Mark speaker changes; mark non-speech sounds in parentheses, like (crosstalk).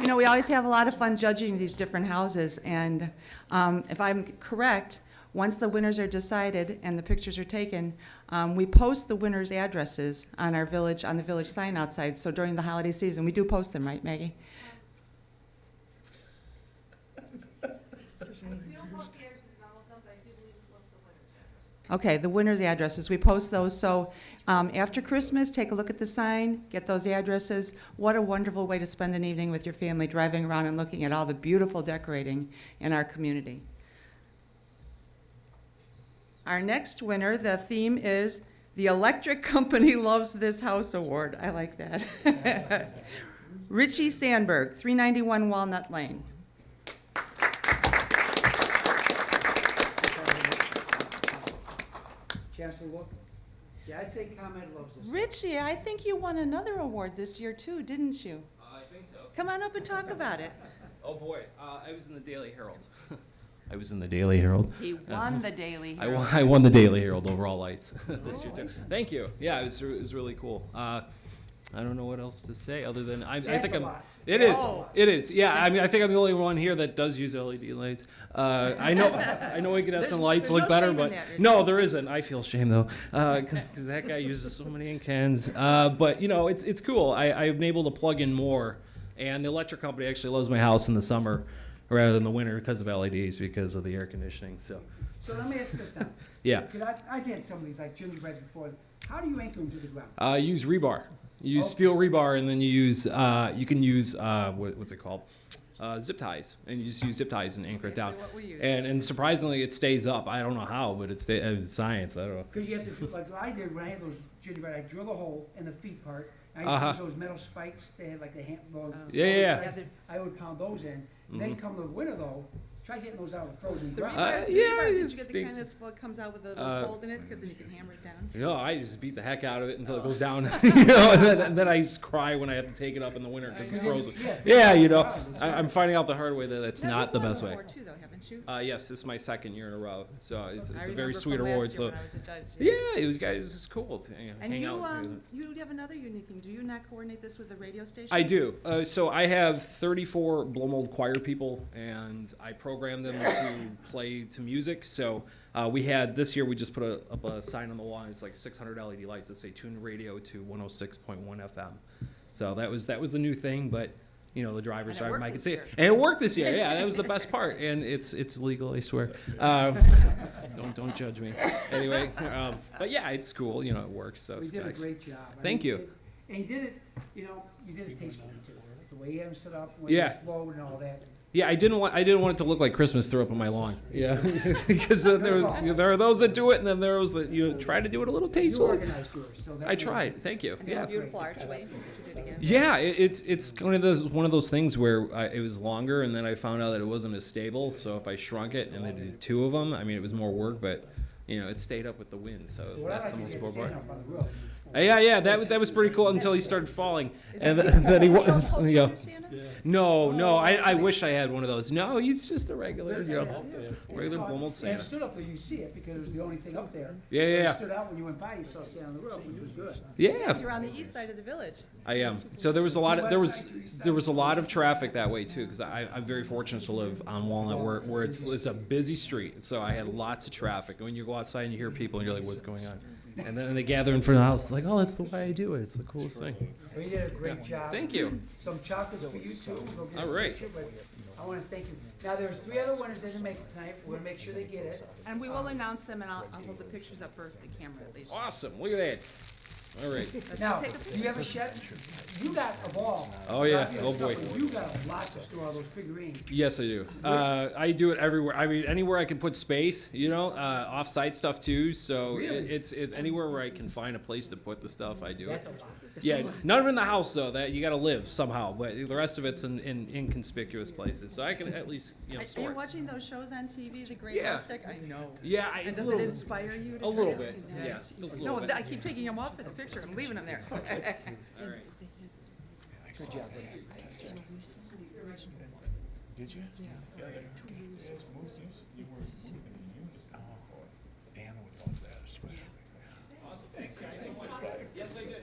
Speaker 1: You know, we always have a lot of fun judging these different houses, and um, if I'm correct, once the winners are decided and the pictures are taken, um, we post the winners' addresses on our village, on the village sign outside, so during the holiday season, we do post them, right, Maggie?
Speaker 2: We don't post the addresses in all of them, but I do believe we post the winners' addresses.
Speaker 1: Okay, the winners' addresses, we post those, so um, after Christmas, take a look at the sign, get those addresses. What a wonderful way to spend an evening with your family, driving around and looking at all the beautiful decorating in our community. Our next winner, the theme is The Electric (laughs) Company Loves This House Award. I like that. (laughs) Richie Sandberg, 391 Walnut Lane.
Speaker 3: Chance to look? Yeah, I'd say ComEd loves this.
Speaker 1: Richie, I think you won another award this year too, didn't you?
Speaker 4: Uh, I think so.
Speaker 1: Come on up and talk about it.
Speaker 4: Oh boy, uh, I was in the Daily Herald. (laughs) I was in the Daily Herald.
Speaker 1: He won the Daily
Speaker 4: I
Speaker 1: Herald.
Speaker 4: (laughs) won, I won the Daily Herald overall lights (laughs) this year too. Thank you. Yeah, it was, re- it was really cool. Uh, I don't know what else to say other than I, I
Speaker 3: That's
Speaker 4: think
Speaker 3: a
Speaker 4: I'm.
Speaker 3: lot.
Speaker 4: It is.
Speaker 1: Oh.
Speaker 4: It is. Yeah. I mean, I think I'm the only one here that does use LED lights. Uh, I know. I know we could have
Speaker 1: There's-
Speaker 4: some lights
Speaker 1: there's no
Speaker 4: look better,
Speaker 1: shame in
Speaker 4: but
Speaker 1: that, Richard.
Speaker 4: no, there isn't. I feel shame though, because that guy uses so many in cans. Uh, but you know, it's it's cool. I, I'm able to plug in more, and the electric company actually loves my house in the summer rather than the winter because of LEDs because of the air conditioning. So
Speaker 3: So let me ask this now.
Speaker 4: yeah.
Speaker 3: Because I, I've had some of these, like gingerbread before. How do you anchor them to the ground?
Speaker 4: Uh, use rebar. You
Speaker 1: Oh.
Speaker 4: use
Speaker 3: Okay.
Speaker 4: steel rebar, and then you use uh, you can use uh, what, what's it called? Uh, zip ties, and you just use zip ties and anchor it down.
Speaker 1: Exactly what we use.
Speaker 4: And and surprisingly, it stays up. I don't know how, but it's sta- it's science. I don't know.
Speaker 3: Because you have to, like I did when I had those gingerbread, I drilled a hole in the feet part. I
Speaker 4: Uh-huh.
Speaker 3: used to use those metal spikes, they had like the hand, well.
Speaker 1: Oh.
Speaker 4: Yeah, yeah, yeah. Mm-hmm.
Speaker 3: spikes. I would pound those in. Then come the winter though, try getting those out of the frozen
Speaker 1: The
Speaker 3: ground.
Speaker 4: Uh,
Speaker 1: rebar, the
Speaker 4: yeah,
Speaker 1: rebar, did
Speaker 4: it
Speaker 1: you get the kind
Speaker 4: stinks.
Speaker 1: that's, well, it comes out with a little
Speaker 4: Uh,
Speaker 1: fold in it, because then you can hammer it down?
Speaker 4: No, I just beat the heck out of it until it goes down, (laughs) you know, and then, and then I just cry when I have to take it up in the winter because it's
Speaker 3: Yeah, you-
Speaker 4: frozen.
Speaker 3: yeah,
Speaker 4: Yeah, you know,
Speaker 3: wow, that's
Speaker 4: I,
Speaker 3: right.
Speaker 4: I'm finding out the hard way that that's
Speaker 1: No,
Speaker 4: not
Speaker 1: you've
Speaker 4: the
Speaker 1: won
Speaker 4: best way.
Speaker 1: before too, though, haven't you?
Speaker 4: Uh, yes, this is my second year in a row, so it's,
Speaker 1: I
Speaker 4: it's a
Speaker 1: remember
Speaker 4: very
Speaker 1: from
Speaker 4: sweet
Speaker 1: last
Speaker 4: award.
Speaker 1: year
Speaker 4: So
Speaker 1: when I was a judge,
Speaker 4: yeah, it was guys, it was cool to you know,
Speaker 1: And
Speaker 4: hang
Speaker 1: you,
Speaker 4: out.
Speaker 1: um, you have another unique thing, do you not coordinate this with the radio station?
Speaker 4: I do. Uh, so I have 34 Blomold choir people, and I program them to play to music. So uh, we had this year. We just put a, up a sign on the wall. and It's like 600 LED E lights that say "Tune Radio to 106.1 FM." So that was that was the new thing, but. You know the
Speaker 1: And it
Speaker 4: drivers drive them.
Speaker 1: worked
Speaker 4: I could
Speaker 1: this
Speaker 4: see
Speaker 1: year.
Speaker 4: it, and it worked this year. Yeah,
Speaker 1: (laughs)
Speaker 4: that was the best part, and it's it's legal. I swear. Uh, (laughs) don't don't judge me. Anyway, um, but yeah, it's cool. You know, it works. So
Speaker 3: We
Speaker 4: it's
Speaker 3: did a
Speaker 4: back-
Speaker 3: great job. I
Speaker 4: Thank
Speaker 3: mean,
Speaker 4: you.
Speaker 3: it- And you did it, you know, you did it tastefully too. The way you had them set up, when
Speaker 4: Yeah.
Speaker 3: it flowed and all that.
Speaker 4: Yeah, I didn't want I didn't want it to look like Christmas threw up on my lawn. Yeah, (laughs) because uh, there was there are those that do it, and then there are those that you know, try to do it a little
Speaker 3: You
Speaker 4: tasteful.
Speaker 3: organized yours, so that.
Speaker 4: I
Speaker 3: way-
Speaker 4: tried. Thank you.
Speaker 1: And
Speaker 4: Yeah.
Speaker 1: that beautiful archway, which you did again.
Speaker 4: Yeah, it, it's it's one of those one of those things where I, it was longer, and then I found out that it wasn't as stable. So if I shrunk it and I did two of them, I mean it was more work, but you know it stayed up with the wind, so
Speaker 3: What I
Speaker 4: that's the
Speaker 3: like is
Speaker 4: most
Speaker 3: you had
Speaker 4: important
Speaker 3: sand
Speaker 4: part.
Speaker 3: up on the roof.
Speaker 4: Uh, Yeah, yeah, that was- that was pretty cool until he started falling, and then, (laughs) then he
Speaker 1: You
Speaker 3: (laughs)
Speaker 4: wa-
Speaker 1: don't coach
Speaker 4: you know,
Speaker 1: under Santa?
Speaker 4: no, no, I, I wish I had one of those. No, he's just a regular, you know, regular
Speaker 3: It's hard-
Speaker 4: Blomold
Speaker 3: And
Speaker 4: Santa.
Speaker 3: it stood up where you see it, because it was the only thing up there.
Speaker 4: Yeah,
Speaker 3: So
Speaker 4: yeah,
Speaker 3: it
Speaker 4: yeah.
Speaker 3: stood out when you went by, you saw sand on the roof, which was good.
Speaker 4: Yeah,
Speaker 1: You're on the east side of the village.
Speaker 4: I am. So there was a lot of there was there was a lot of traffic that way too, because I I'm very fortunate to live on Walnut where where it's it's a busy street. So I had lots of traffic. When you go outside and you hear people and you're like, what's going on? And then they gather in front of the house, like, oh, that's the way I do it. It's the coolest thing.
Speaker 3: Well, you did a great job.
Speaker 4: Thank you.
Speaker 3: Some chocolates for you too. We'll get a
Speaker 4: All right.
Speaker 3: picture, but I wanna thank you. Now, there's three other winners that didn't make it tonight, we're gonna make sure they get it.
Speaker 1: And we will announce them, and I'll, I'll hold the pictures up for the camera at least.
Speaker 4: Awesome. Look at that. All right.
Speaker 1: Let's
Speaker 3: Now,
Speaker 1: take a
Speaker 3: do you have a shed? You got a ball.
Speaker 4: Oh, yeah.
Speaker 3: Lots of
Speaker 4: Oh,
Speaker 3: stuff,
Speaker 4: boy.
Speaker 3: and You got lots of store, all those figurines.
Speaker 4: Yes, I do. Uh, I do it everywhere. I mean, anywhere I can put space, you know, uh, off-site stuff too. So it-
Speaker 3: Really?
Speaker 4: it's it's anywhere where I can find a place to put the stuff, I do it.
Speaker 3: That's a lot.
Speaker 4: Yeah, none of it in the house though. That you got to live somehow, but the rest of it's in, in inconspicuous places. So I can at least you know
Speaker 1: Are are you
Speaker 4: sort.
Speaker 1: watching those shows on TV, The Great
Speaker 4: Yeah.
Speaker 1: Aztec? I know.
Speaker 4: Yeah, I,
Speaker 1: And does
Speaker 4: it's a
Speaker 1: it
Speaker 4: little, bit-
Speaker 1: inspire you to?
Speaker 4: a little
Speaker 1: kind of-
Speaker 4: bit. Yeah, just a
Speaker 1: No,
Speaker 4: little
Speaker 1: th-
Speaker 4: bit.
Speaker 1: I keep taking them off for the picture, I'm leaving them there.
Speaker 4: (laughs) All right.
Speaker 3: Good job.
Speaker 5: Did you? Yeah. Oh, Anna would love that especially.
Speaker 4: Yes, I did.